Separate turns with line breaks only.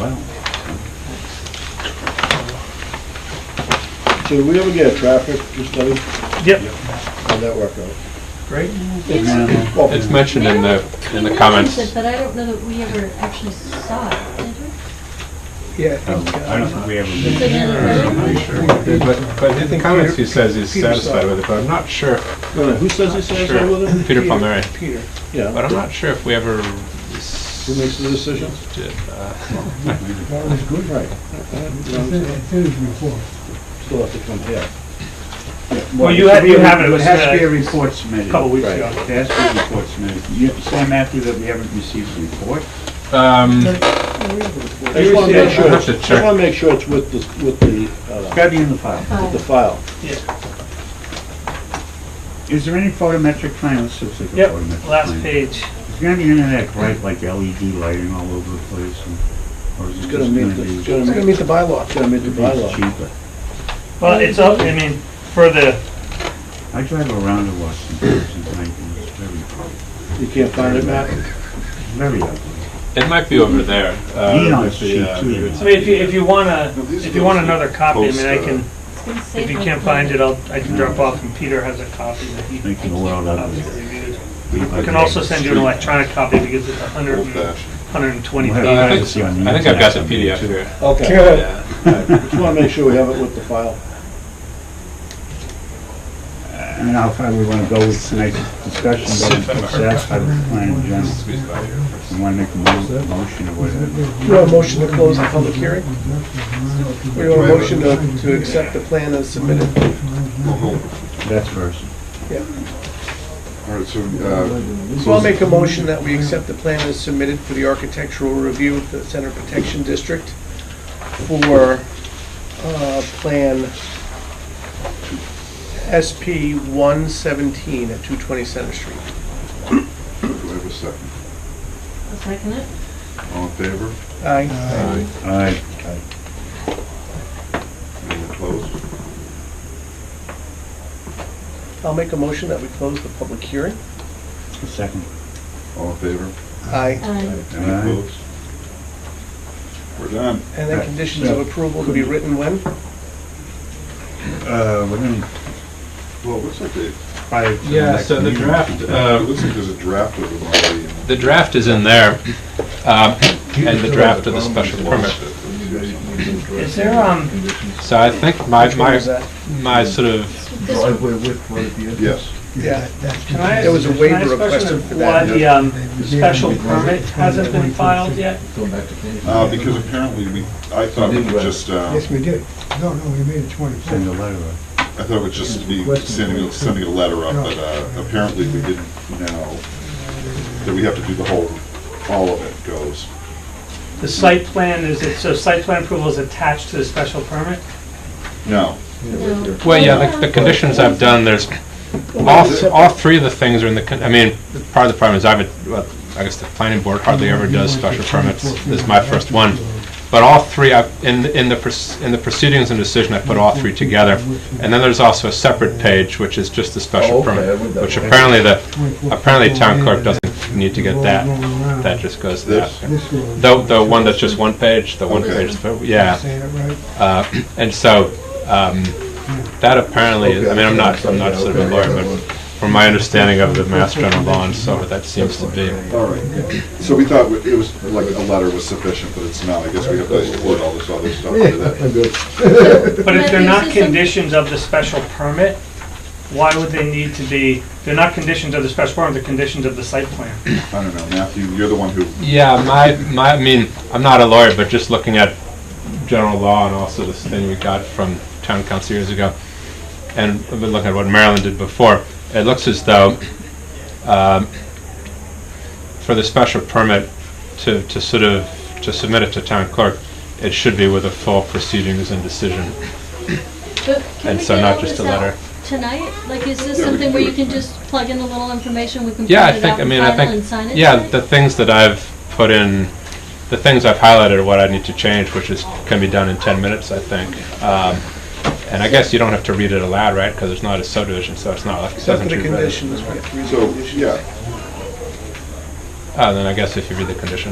Well,
So did we ever get a traffic study?
Yep,
How'd that work out?
great.
yeah,
Well,
It's mentioned in the, in the comments.
But I don't know that we ever actually saw it, did we?
Yeah.
I don't think we ever
It's
did.
in the-
But, but in the comments, he says he's satisfied with it, but I'm not sure,
wait a minute, Who says he's satisfied
Sure.
with it?
Peter Palmieri,
Peter.
Yeah.
but I'm not sure if we ever
Who makes the decisions?
did, uh,
That was good. Right. Still have to come here.
Well, you had- you have it, it was,
has to be a
uh,
report submitted.
Couple weeks
Right.
ago.
It has to be a report submitted. You say, Matthew, that we haven't received a report?
um,
I just wanna make sure,
I'll
I
have to
just
check.
wanna make sure it's with the, with the,
It's
uh,
gotta be in the file.
with the file.
Is there any photometric plan? Let's see if there's a
Yep,
photometric
last
plan.
page.
Is there any internet bright, like LED lighting all over the place? and- Or is it
It's
just
gonna
gonna
meet, the-
be?
it's gonna meet the bylaw. It's gonna meet the
It's
bylaw.
cheaper.
Well, it's up, I mean, for the,
I drive around to Washington tonight and it's very,
You can't find it, Matt?
very ugly.
it might be over there. uh,
Neon's
with the, uh,
cheap too. you
I
know.
mean, if you, if you wanna, if you want another copy, I mean, I can,
It's been saved
if you
on
can't
the-
find it, uh, I'll, I can drop off and Peter has a copy that he
Making the world ugly.
obviously reviewed. I can also send you an electronic copy because it's a hundred, hundred and twenty
Well,
uh, I
pages.
think I think I've got the PDF here.
Okay.
Yeah.
Just wanna make sure we have it with the file.
I mean, how far we want to go with tonight's discussion, but
If I'm
I'm satisfied with the plan in general.
Squeeze by here first.
We want to make a mo- motion or whatever.
Do you want a motion to close the public hearing? Or you want a motion to, to accept the plan as submitted?
That's first.
All right, so, uh,
So I'll make a motion that we accept the plan as submitted for the architectural review of the Center Protection District for, uh, plan SP one seventeen at two twenty Center Street.
do I have a second?
I'll second it.
All in favor?
Aye.
All right,
Any opposed?
I'll make a motion that we close the public hearing.
a second.
All in favor?
Aye.
Um,
Any
Aye.
opposed? We're done.
And then conditions of approval to be written when?
Uh, we're gonna,
Well, it looks like they,
prior to the
Yeah,
next
so the
meeting.
draft,
Uh, it
um,
looks like there's a draft of them already. in
the draft is in there, um, and the draft of the special permit.
Is there, um,
So I think my,
Which one
my,
was that?
my sort of,
This one,
Yes.
Yeah.
can I?
There was a
can I
waiver
ask a question
requested
of
for that.
Why the, um, special permit hasn't been filed yet?
Uh, because apparently we, I thought we could just, uh,
Yes, we did. No, no, we made it 25.
Send a letter. out.
I thought it would just be sending, sending a letter up, but uh, apparently we didn't know that we have to do the whole, all of it goes.
The site plan is, it- so site plan approval is attached to the special permit?
No,
no.
well, yeah, the, the conditions I've done, there's, all, th- all three of the things are in the, con- I mean, part of the problem is I've, well, I guess the planning board hardly ever does special permits. This is my first one. But all three, I've- in, in the, proce- in the proceedings and decision, I put all three together. And then there's also a separate page, which is just the special permit, which apparently the, apparently town clerk doesn't need to get that. That just goes to
This?
that. The, the one that's just one page, the one
Okay.
page, yeah.
Saying it right.
Uh, And so, um, that apparently, is- I mean, I'm not, I'm not sort of a lawyer, but from my understanding of the Mass General Law and so, forth, that seems to be.
all right. So we thought it was, like, a letter was sufficient, but it's not. I guess we have to include all this other stuff into that.
But if they're
But
not
this is a-
conditions of the special permit, why would they need to be, they're not conditions of the special permit, they're conditions of the site plan.
I don't know, Matthew, you're the one who,
Yeah, my, my, I mean, I'm not a lawyer, but just looking at general law and also this thing we got from town council years ago, and I've been looking at what Maryland did before, it looks as though, um, for the special permit to, to sort of, to submit it to town clerk, it should be with a full proceedings and decision.
But can
And
we
so
get
not
all
just
this
a
out
letter.
Tonight? Like, is this
Yeah, we
something
can
where
do
you
it
can
tonight.
just plug in a little information, we can
Yeah, I
print it
think,
out
I
and
mean, I
file and sign
think,
it?
yeah,
tonight?
the things that I've put in, the things I've highlighted are what I need to change, which is, can be done in 10 minutes, I think. Um, And I guess you don't have to read it aloud, right, because it's not a subdivision, so it's not like, it
Except
doesn't
for the
read it.
conditions, we have to read the
so,
conditions.
yeah,
Oh, then I Uh, guess if you read the condition,